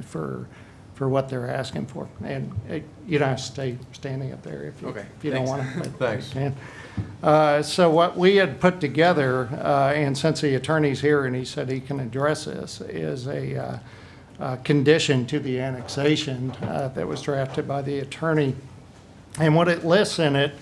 standing for, for what they're asking for. And uh, you don't have to stay standing up there if you, Okay, if you don't want to. Thanks. Uh, So what we had put together, uh, and since the attorney's here and he said he can address this, is a uh, uh, condition to the annexation uh, that was drafted by the attorney. And what it lists in it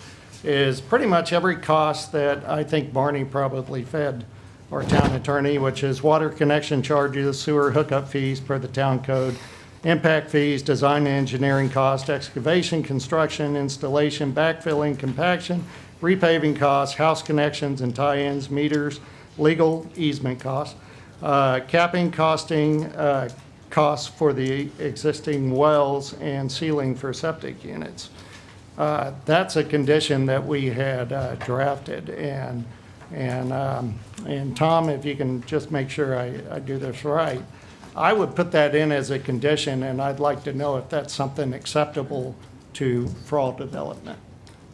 is pretty much every cost that I think Barney probably fed our town attorney, which is water connection charges, sewer hookup fees per the town code, impact fees, design and engineering cost, excavation, construction, installation, backfilling, compaction, repaving costs, house connections and tie-ins, meters, legal easement costs, uh, capping costing, uh, costs for the existing wells, and ceiling for septic units. Uh, That's a condition that we had uh, drafted, and, and, um, and Tom, if you can just make sure I, I do this right, I would put that in as a condition, and I'd like to know if that's something acceptable to Frall Development.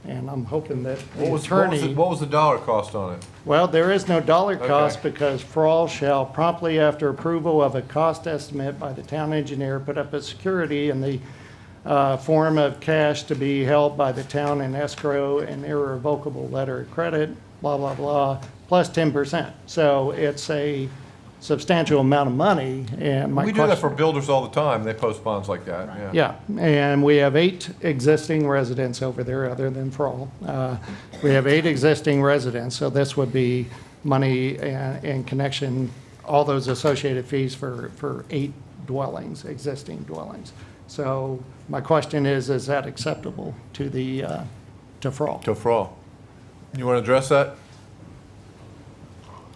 And I'm hoping that What the was, what was, the- attorney, what was the dollar cost on it? well, there is no dollar Okay. cost because Frall shall promptly after approval of a cost estimate by the town engineer, put up a security in the uh, form of cash to be held by the town in escrow and irrevocable letter of credit, blah, blah, blah, plus 10%. So it's a substantial amount of money, and my We question. do that for builders all the time, they post bonds like that, yeah. Yeah, and we have eight existing residents over there, other than Frall. Uh, We have eight existing residents, so this would be money and and connection, all those associated fees for, for eight dwellings, existing dwellings. So my question is, is that acceptable to the, uh, to Frall? To Frall. You want to address that?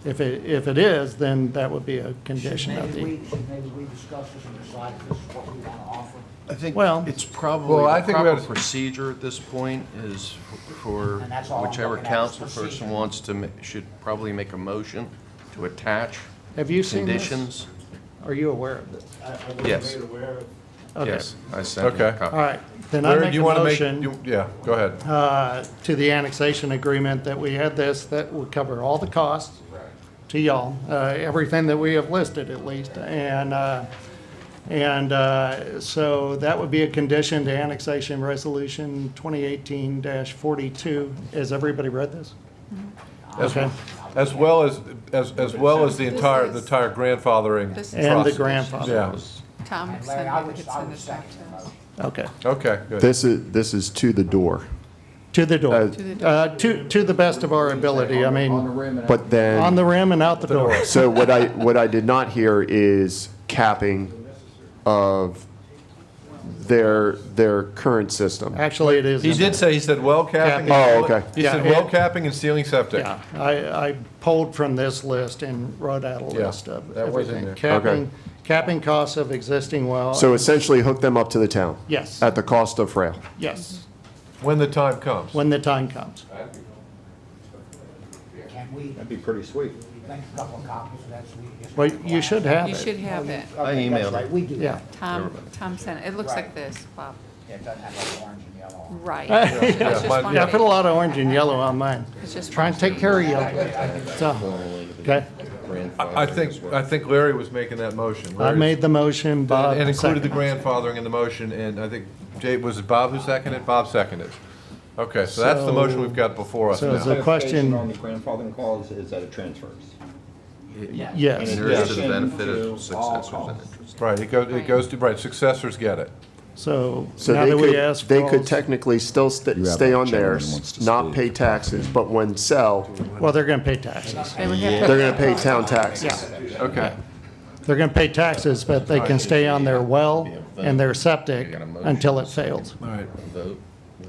If it, if it is, then that would be a condition of Maybe the, we, should maybe we discuss this and decide if this is what we want to offer? I think Well- it's probably Well, I the think we proper ought to- procedure at this point is for And that's all I'm whichever looking at is council procedure. person wants to, ma- should probably make a motion to attach have you seen this? conditions. Are you aware of this? Yes, Okay. yes, I sent you a Okay. All copy. right, then I Larry, make do a you wanna make- motion. you- Yeah, go ahead. uh, to the annexation agreement that we had this, that would cover all the costs to y'all, uh, everything that we have listed at least. And, uh, and uh, so that would be a condition to annexation resolution 2018-42. Has everybody read this? As, Okay. as well as, as, as well as the This entire, the is- entire grandfathering. This is- And the process. grandfather. Yeah, Tom And Larry, I said we would, could I send would this back second to the us. motion. Okay, okay, good. This is, this is to the door, to the door. Uh, To the door. Uh, To, to the best of our ability, I On the mean, rim and out. but then. on the rim and out the door. So what I, what I did not hear is capping of their, their current system. Actually, it is. He in did there. say, he said well capping. Capping. and Oh, ceiling- okay. He said Yeah. well capping and ceiling septic. Yeah, I, I pulled from this list and wrote out a Yeah, list of that was in everything. there. Okay. Capping, capping costs of existing well. So essentially hook them up to the town? Yes. At the cost of Frail? Yes, When the time comes. when the time comes. Can we, That'd be pretty sweet. we make a couple of copies of that so we can just. Well, you should have You should it. have it. I emailed That's right, we do. Yeah. that. Tom, Tom sent it. It looks like Right. this, Bob. Yeah, It doesn't have like orange and yellow on it. Right. Yeah, It's just mine- one Yeah, I put a page. lot of orange and yellow on mine. It's just Try and take care of you. So, okay, I I think, I think Larry was making that motion. I Larry's- made the motion, Bob And included the seconded. grandfathering in the motion, and I think, Jay, was it Bob who seconded? Bob seconded. Okay, so that's the motion we've got before us So- so now. The question- Clarification On the grandfathering clause is that it transfers. Yes. In And there is to the addition benefit to all of successors and costs. interest. Right, it goes, it goes to, right, successors get it. So So now they that we could, asked. they could Frall's- technically still st- You have stay a on gentleman theirs, who wants to not speak. pay taxes, but when sell, Well, they're going to pay taxes. They would have they're to- gonna pay town taxes. Okay. They're going to pay taxes, but they can stay on their well and their septic until it fails. All right. Vote.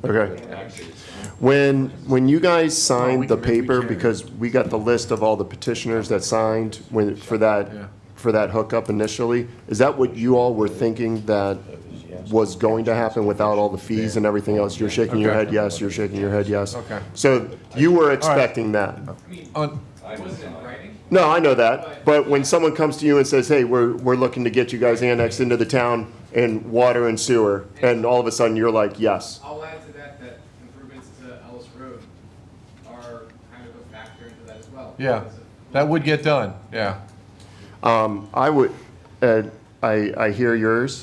Okay. When, when you Oh, guys signed the paper, because we got the list of all the petitioners that signed when, for Yeah. that, for that hookup initially, is that what you all were thinking that was going to happen without all the fees and everything else? You're shaking your Okay. head yes, you're shaking your head yes. Okay. So you were expecting that? On, No, I know that, but when someone comes to you and says, hey, we're, we're looking to get you guys annexed into the town and water and sewer, and all of a sudden you're like, yes. I'll add to that, that improvements to Ellis Road are kind of a factor into that as well. Um, yeah, that would get done, yeah. I would, uh, I, I hear yours.